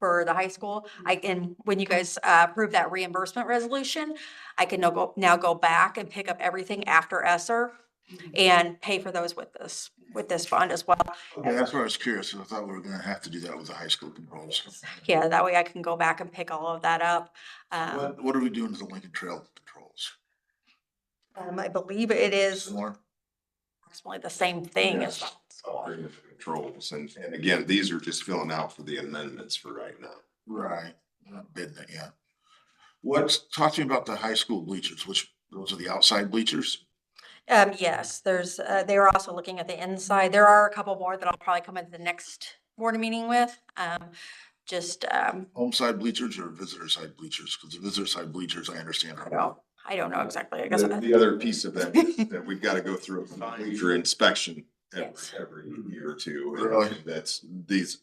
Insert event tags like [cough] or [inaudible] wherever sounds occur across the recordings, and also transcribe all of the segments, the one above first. for the high school. I Mm-hmm. can, when you guys uh, approve that reimbursement resolution, I can now go, now go back and pick up everything after ESER Mm-hmm. and pay for those with this, with this fund as well. Okay, that's what I was curious, 'cause I thought we were gonna have to do that with the high school controls. Yeah, that way I can go back and pick all of that up. Um, What, what are we doing to the Lincoln Trail controls? um, I believe it is Similar? approximately the same thing as, Yes. Agreement for Controls, and, and again, these are just filling out for the amendments for right now. Right, not bid that yet. What's, talk to me about the high school bleachers, which, those are the outside bleachers? um, yes, there's, uh, they were also looking at the inside. There are a couple more that I'll probably come into the next board meeting with. Um, just, um, Home side bleachers or visitor side bleachers? Cause the visitor side bleachers, I understand. I are- don't, I don't know exactly. I guess. The, the other piece of [laughs] that, is that we've gotta go through a major inspection every, Yes. every year or two. and Really? That's, these,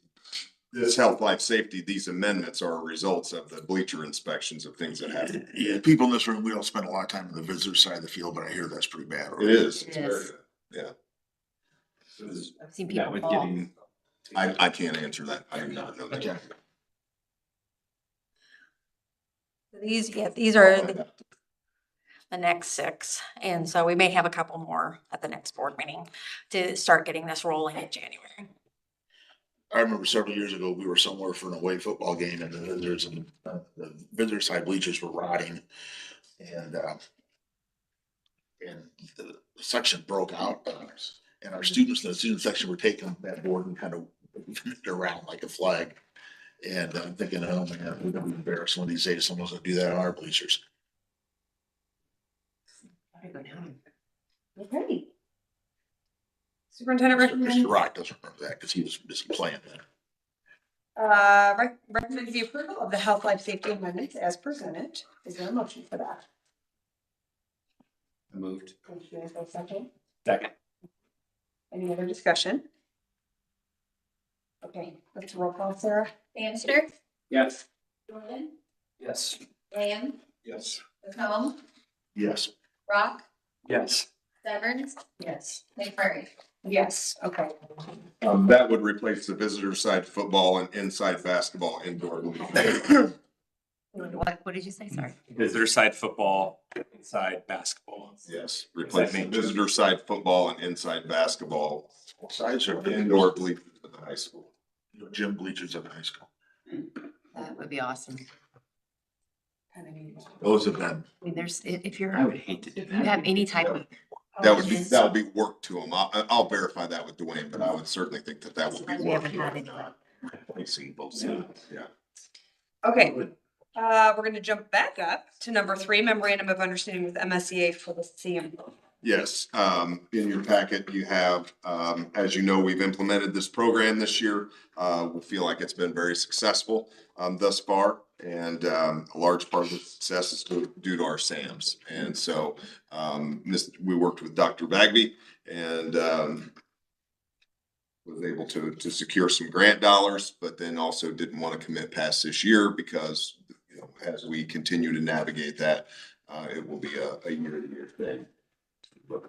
this health, life, safety, these amendments are results of the bleacher inspections of things that happen. Yeah, people in this room, we don't spend a lot of time on the visitor side of the field, but I hear that's pretty bad. It is. it's Yes. very- I've seen people with fall. getting- I, I can't answer that. I do not know Okay. that. These, yeah, these are the the next six. And so we may have a couple more at the next board meeting to start getting this rolling in January. I remember several years ago, we were somewhere for an away football game and the visitors and uh, the visitor side bleachers were rotting and, uh, and the section broke out uh, and our students, in the student section were taking that board and kind of waving it around like a flag. And I'm thinking, oh man, we're gonna be embarrassed one of these days. Someone's gonna do that on our bleachers. Okay. Mr. Superintendent Mr. recommends, Rock doesn't remember that because he was busy playing then. uh, rec- recommends the approval of the health, life, safety amendments as presented. Is there a motion for that? Moved. Thank you. Is there a second? Second. Any other discussion? Okay, let's roll call, Sarah. Bannister, [laughs] Yes. Jordan, Yes. Lamb, Yes. McComb, Yes. Rock, Yes. Severns, Yes. McMurray. Yes, okay. Um, that would replace the visitor side football and inside basketball indoor. What, what did you say? Sorry. Visitor side football, inside basketball. Yes, replace the visitor side football and inside basketball, Sides are indoor bleachers at the high school. gym bleachers at the high school. That would be awesome. Kind of need- Those have been I mean, there's, i- if you're, I would hate to do if you have that. any type of. Oh, That would be, ordinance- that would be work to them. I'll, I'll verify that with Dwayne, but I would certainly think that that would be We work haven't to had them. any like Replacing both sides. Okay, uh, we're gonna jump back up to number three, memorandum of understanding with MSEA for the CM. Yes, um, in your packet, you have, um, as you know, we've implemented this program this year. Uh, we feel like it's been very successful, um, thus far. And, um, a large part of the success is due due to our SAMs. And so, um, this, we worked with Dr. Bagby and, um, was able to, to secure some grant dollars, but then also didn't want to commit past this year because, you know, as we continue to navigate that, uh, it will be a, a year-to-year thing. So,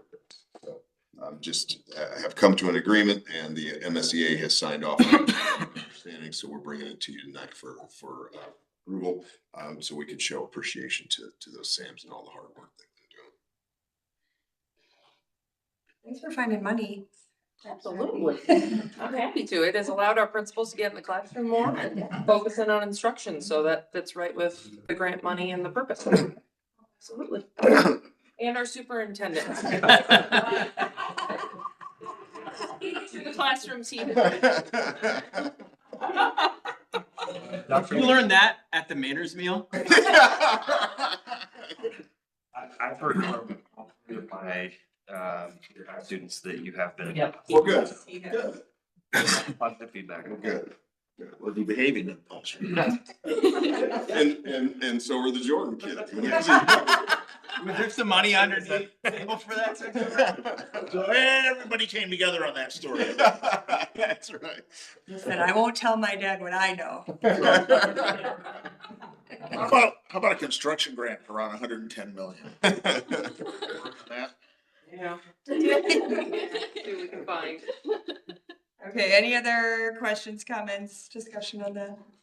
um, just, uh, have come to an agreement and the MSEA has signed off. on it. Understanding, so we're bringing it to you tonight for, for uh, approval, um, so we can show appreciation to, to those SAMs and all the hard work they've been doing. Thanks for finding money. Absolutely. [laughs] I'm happy to. It has allowed our principals to get in the classroom more and focus in on instruction, so that fits right with the grant money and the purpose. Absolutely. And our superintendent. To the [laughs] classroom team. [laughs] You learned that at the manners meal? I, I've heard from all three of my, um, your high students that you have been. Yep. Well, good, good, Positive feedback. well, good. Well, you behaving in culture. And, and, and so are the Jordan kids. [laughs] Was there some money underneath the table for that? [laughs] So everybody came together on that story. [laughs] That's right. Listen, I won't tell my dad what I [laughs] know. How about, how about a construction grant for around hundred and ten [laughs] million? Yeah. See what we can find. Okay, any other questions, comments, discussion on that?